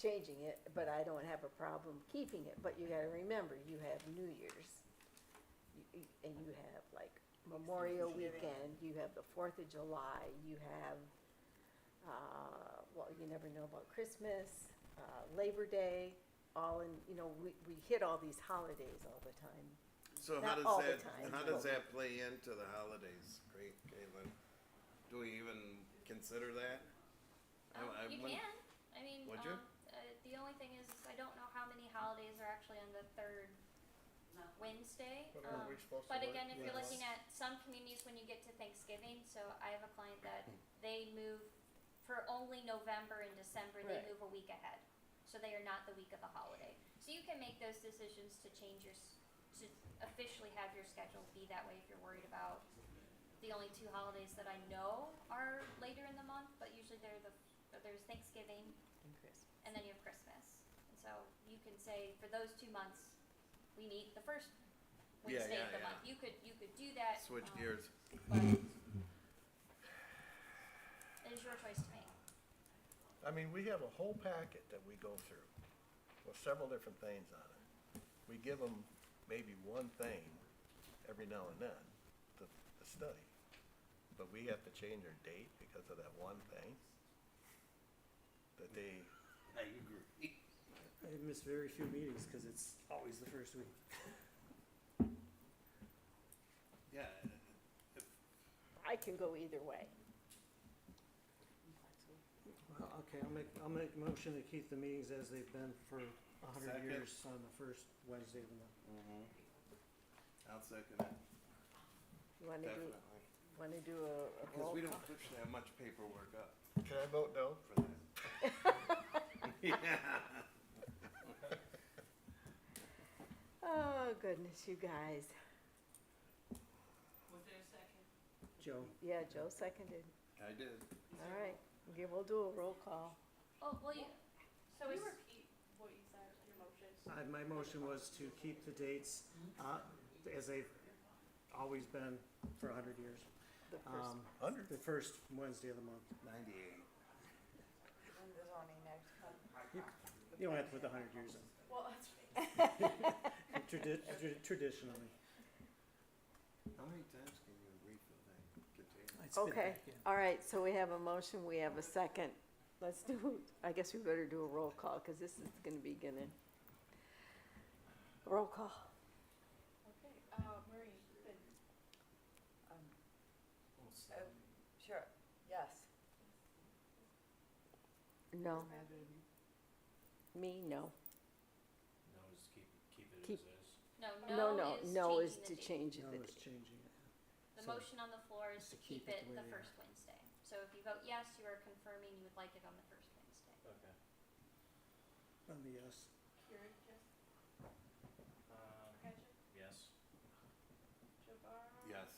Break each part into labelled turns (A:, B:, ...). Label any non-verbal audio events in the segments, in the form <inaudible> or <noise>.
A: changing it, but I don't have a problem keeping it, but you gotta remember, you have New Year's. You- you- And you have like Memorial
B: Thanksgiving.
A: Weekend, you have the Fourth of July, you have, uh, well, you never know about Christmas, uh, Labor Day, all in, you know, we, we hit all these holidays all the time.
C: So
A: Not
C: how does
A: all the
C: that,
A: time,
C: how does
A: but-
C: that play into the holidays, great, Caitlin? Do we even consider that? I-
D: Um,
C: I
D: you
C: wouldn't-
D: can. I mean,
C: Would
D: um,
C: you?
D: Uh, the only thing is, I don't know how many holidays are actually on the third
B: No.
D: Wednesday.
E: But
D: Um,
E: are we supposed to
D: but
E: work?
D: again, if you're
E: Yeah.
D: looking at some communities when you get to Thanksgiving, so I have a client that they move for only November and December, they
A: Right.
D: move a week ahead. So they are not the week of the holiday. So you can make those decisions to change your, s- to officially have your schedule be that way if you're worried about the only two holidays that I know are later in the month, but usually they're the, there's Thanksgiving
A: And Christmas.
D: and then you have Christmas. And so you can say for those two months, we meet the first
C: Yeah,
D: Wednesday
C: yeah,
D: of the
C: yeah.
D: month. You could you could do that.
C: Switch
D: um,
C: gears.
D: But it is your choice to make.
E: I mean, we have a whole packet that we go through with several different things on it. We give them maybe one thing every now and then to, to study. But we have to change our date because of that one thing that they,
F: I agree.
G: I miss very few meetings because it's always the first week.
C: Yeah,
A: I can go either way.
G: Well, okay, I'll make, I'll make a motion to keep the meetings as they've been for a hundred
C: Second.
G: years on the first Wednesday of the month.
F: Mm-hmm.
C: I'll second it,
A: You wanna do,
C: definitely.
A: wanna do a- a
C: Because
A: roll
C: we
A: call?
C: don't push that much paperwork up
E: can I vote no?
C: for
A: <laughs>
C: that. <laughs> Yeah.
A: Oh, goodness, you guys.
B: Was there a second?
G: Joe,
A: Yeah, Joe seconded.
C: I did.
A: All right, yeah, we'll do a roll call.
D: Oh well, you,
H: So
D: We
H: is,
D: were-
H: what you said, your motion?
G: I, my motion was to keep the dates, uh, as they've always been for a hundred years.
A: The first,
G: Um,
E: Hundred.
G: the first Wednesday of the month.
C: Ninety-eight.
B: When the zoning next come?
G: You don't have to put the hundred years in,
H: Well, that's right.
G: tradi- tradi- traditionally.
C: How many times can you refill that container?
G: It's been
A: Okay.
G: back, yeah.
A: all right, so we have a motion, we have a second. Let's do, I guess we better do a roll call, because this is gonna be gonna. Roll call.
H: Okay, uh, Marie, then,
B: Um, uh, Sure, yes.
A: No, me,
F: No,
A: no.
F: just keep, keep it
A: Keep-
F: as is.
D: no, no,
A: No, no, no is to
D: changing
A: change
D: the date.
G: No,
A: the
G: it's
A: date.
G: changing it.
D: The
G: So-
D: motion on the floor is
G: Just
D: to
G: to
D: keep
G: keep it
D: it
G: the way
D: the
G: they are.
D: first Wednesday. So if you vote yes, you are confirming you would like it on the first Wednesday.
F: Okay.
G: On the uh, yes.
H: Keurig, yes,
F: Um,
H: Patrick,
F: yes.
H: Jabbar.
C: Yes.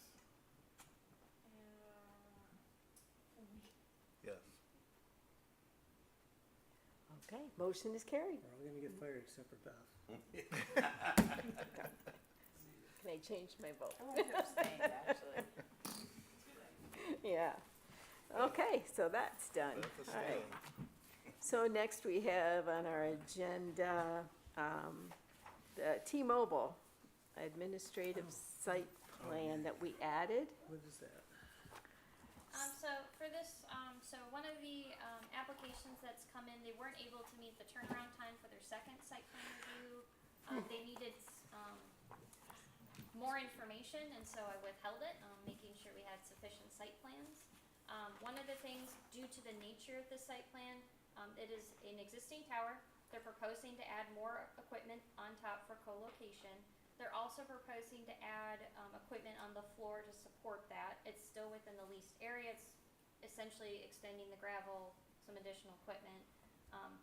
H: And, uh, we
E: Yes.
A: Okay, motion is
G: <laughs>
A: carried.
G: We're all gonna get fired except for Beth.
A: Can I change my vote?
B: I want to abstain, actually.
A: Yeah. Okay, so that's done.
E: That's a
A: All right.
E: stand.
A: So next we have on our agenda, um, the T-Mobile administrative site
E: Oh,
A: plan that we added.
G: What is that?
D: Um, so for this, um, so one of the, um, applications that's come in, they weren't able to meet the turnaround time for their second site plan review. Um, they needed, um, more information, and so I withheld it, um, making sure we had sufficient site plans. Um, one of the things, due to the nature of the site plan, um, it is an existing tower. They're proposing to add more equipment on top for co-location. They're also proposing to add, um, equipment on the floor to support that. It's still within the leased area. It's essentially extending the gravel, some additional equipment. Um,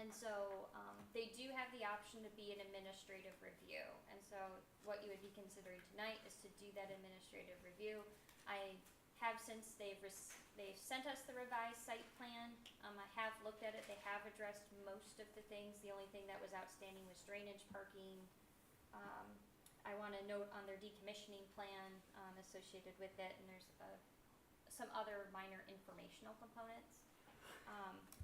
D: and so, um, they do have the option to be an administrative review. And so what you would be considering tonight is to do that administrative review. I have since they've res- they've sent us the revised site plan. Um, I have looked at it. They have addressed most of the things. The only thing that was outstanding was drainage, parking. Um, I want to note on their decommissioning plan um, associated with it, and there's uh, some other minor informational components. Um,